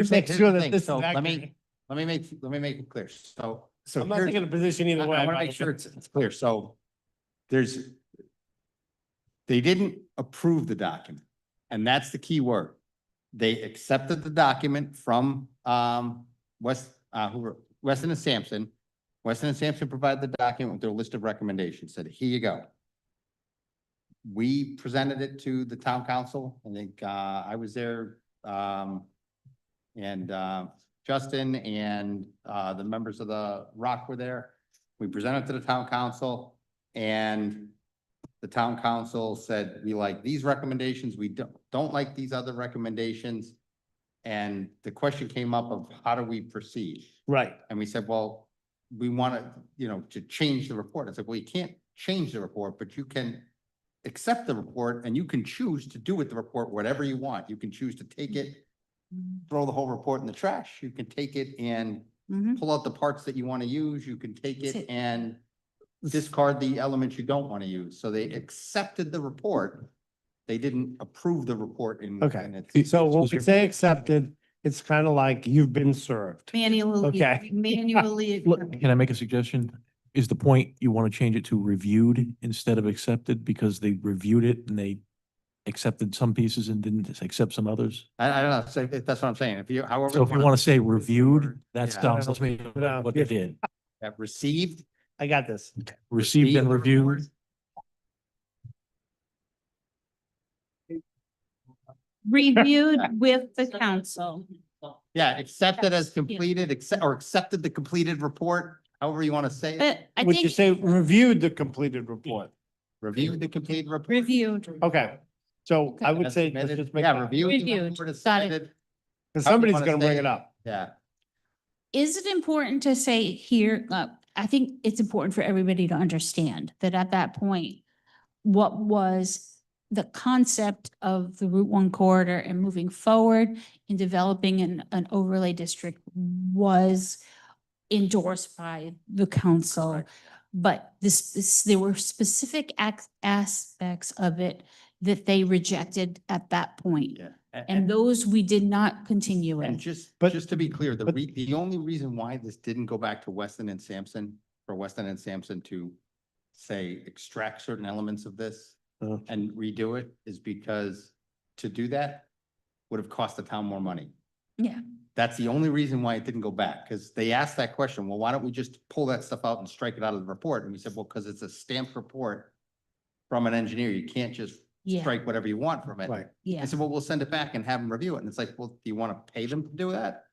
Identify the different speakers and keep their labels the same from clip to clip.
Speaker 1: Just
Speaker 2: make
Speaker 1: here's
Speaker 2: sure
Speaker 1: the
Speaker 2: that
Speaker 1: thing.
Speaker 2: this is
Speaker 1: So Let
Speaker 2: accurate.
Speaker 1: me, let me make, let me make it clear. So, so
Speaker 2: I'm not
Speaker 1: here's,
Speaker 2: taking a position
Speaker 1: I
Speaker 2: either way.
Speaker 1: want to
Speaker 2: but-
Speaker 1: make sure it's, it's clear. So there's, they didn't approve the document. And that's the key word. They accepted the document from, um, West, uh, who were, Weston and Sampson. Weston and Sampson provided the document with their list of recommendations, said, here you go. We presented it to the town council. I think, uh, I was there, um, and, uh, Justin and, uh, the members of the Rock were there. We presented to the town council and the town council said, we like these recommendations, we don't, don't like these other recommendations. And the question came up of how do we proceed?
Speaker 2: Right,
Speaker 1: And we said, well, we want to, you know, to change the report. I said, well, you can't change the report, but you can accept the report and you can choose to do with the report whatever you want. You can choose to take it, throw the whole report in the trash. You can take it and
Speaker 3: Mhm.
Speaker 1: pull out the parts that you want to use. You can take
Speaker 3: That's
Speaker 1: it
Speaker 3: it.
Speaker 1: and discard the elements you don't want to use. So they accepted the report. They didn't approve the report in.
Speaker 2: Okay.
Speaker 1: in its-
Speaker 2: so when we say accepted, it's kind of like you've been served.
Speaker 3: Manually,
Speaker 2: Okay.
Speaker 3: manually.
Speaker 4: Look, can I make a suggestion? Is the point you want to change it to reviewed instead of accepted because they reviewed it and they accepted some pieces and didn't accept some others?
Speaker 1: I, I don't know. So that's what I'm saying. If you, however.
Speaker 4: So if you
Speaker 1: wanna-
Speaker 4: want to say reviewed, that
Speaker 1: Yeah.
Speaker 4: sounds, let's make
Speaker 2: No.
Speaker 4: what they did.
Speaker 1: That received
Speaker 2: I got this.
Speaker 4: Received and reviewed.
Speaker 3: Reviewed with the council.
Speaker 1: Yeah, accepted as
Speaker 3: Yes, yeah.
Speaker 1: completed, accept, or accepted the completed report, however you want to say it.
Speaker 3: But I
Speaker 2: Would you
Speaker 3: think
Speaker 2: say reviewed the completed report?
Speaker 1: Reviewed the completed report.
Speaker 3: reviewed.
Speaker 2: Okay, so I would
Speaker 1: as
Speaker 2: say, let's
Speaker 1: submitted.
Speaker 2: just make,
Speaker 1: Yeah,
Speaker 2: because
Speaker 1: reviewed. the
Speaker 3: Reviewed,
Speaker 1: report as
Speaker 3: got it.
Speaker 1: submitted.
Speaker 2: somebody's
Speaker 1: wanna
Speaker 2: gonna
Speaker 1: say
Speaker 2: bring
Speaker 1: it.
Speaker 2: it up.
Speaker 1: Yeah,
Speaker 3: Is it important to say here, uh, I think it's important for everybody to understand that at that point, what was the concept of the Route One corridor and moving forward in developing an, an overlay district was endorsed by the council. But this, this, there were specific ac- aspects of it that they rejected at that point.
Speaker 1: yeah.
Speaker 3: And those we did not continue
Speaker 1: And
Speaker 3: with.
Speaker 1: just,
Speaker 2: But-
Speaker 1: just to be clear, the
Speaker 2: but-
Speaker 1: re, the only reason why this didn't go back to Weston and Sampson, for Weston and Sampson to say, extract certain elements of this
Speaker 2: Uh.
Speaker 1: and redo it is because to do that would have cost the town more money.
Speaker 3: Yeah.
Speaker 1: That's the only reason why it didn't go back, because they asked that question, well, why don't we just pull that stuff out and strike it out of the report? And we said, well, because it's a stamped report from an engineer. You can't just
Speaker 3: Yeah,
Speaker 1: strike whatever you want from it.
Speaker 2: Right.
Speaker 3: yeah.
Speaker 1: I said, well, we'll send it back and have them review it. And it's like, well, do you want to pay them to do that?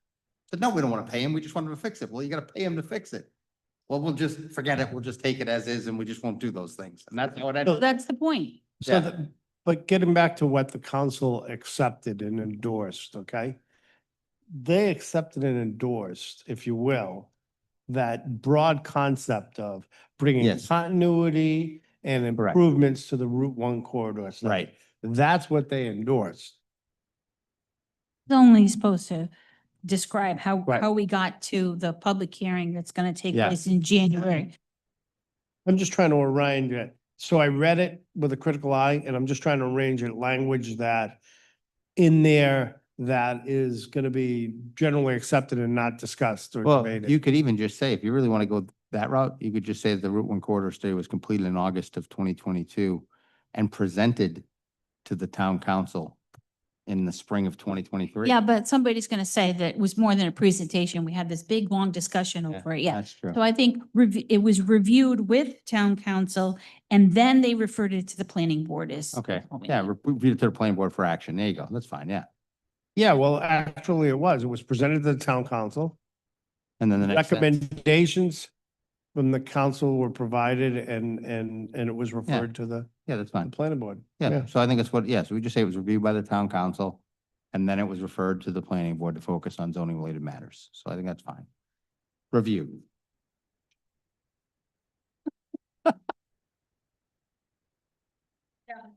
Speaker 1: Said, no, we don't want to pay them. We just want them to fix it. Well, you got to pay them to fix it. Well, we'll just forget it. We'll just take it as is and we just won't do those things. And that's how it ended.
Speaker 3: That's the point.
Speaker 2: So,
Speaker 1: Yeah.
Speaker 2: the- but getting back to what the council accepted and endorsed, okay? They accepted and endorsed, if you will, that broad concept of bringing
Speaker 1: Yes.
Speaker 2: continuity and
Speaker 1: Correct.
Speaker 2: improvements to the Route One corridor. stuff. That's what they endorsed.
Speaker 3: It's only supposed to describe how,
Speaker 2: Right.
Speaker 3: how we got to the public hearing that's gonna take
Speaker 1: Yeah. Mm-hmm.
Speaker 3: place in January.
Speaker 2: I'm just trying to arrange it. So I read it with a critical eye and I'm just trying to arrange it language that in there that is going to be generally accepted and not discussed or
Speaker 1: Well,
Speaker 2: debated.
Speaker 1: you could even just say, if you really want to go that route, you could just say that the Route One corridor study was completed in August of twenty twenty-two and presented to the town council in the spring of twenty twenty-three.
Speaker 3: Yeah, but somebody's gonna say that it was more than a presentation. We had this big, long discussion
Speaker 1: Yeah,
Speaker 3: over it. Yeah.
Speaker 1: That's true.
Speaker 3: So I think rev- it was reviewed with town council and then they referred it to the planning board as.
Speaker 1: Okay, yeah, re- read it to the planning board for action. There you go. That's fine, yeah.
Speaker 2: Yeah, well, actually it was. It was presented to the town council.
Speaker 1: And then the next sentence.
Speaker 2: Recommendations from the council were provided and, and, and it was referred to the
Speaker 1: Yeah, that's
Speaker 2: the
Speaker 1: fine.
Speaker 2: planning board.
Speaker 1: Yeah, so I think that's what, yeah, so we just say it was reviewed by the town council. And then it was referred to the planning board to focus on zoning related matters. So I think that's fine. Review.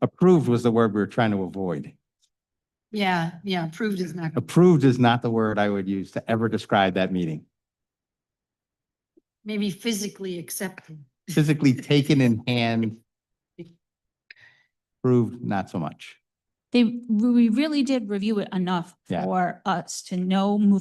Speaker 1: Approved was the word we were trying to avoid.
Speaker 5: Yeah, yeah, approved is not.
Speaker 1: Approved is not the word I would use to ever describe that meeting.
Speaker 5: Maybe physically accepted.
Speaker 1: Physically taken in hand. Approved, not so much.
Speaker 3: they, we really did review it enough
Speaker 1: Yeah.
Speaker 3: for us to know moving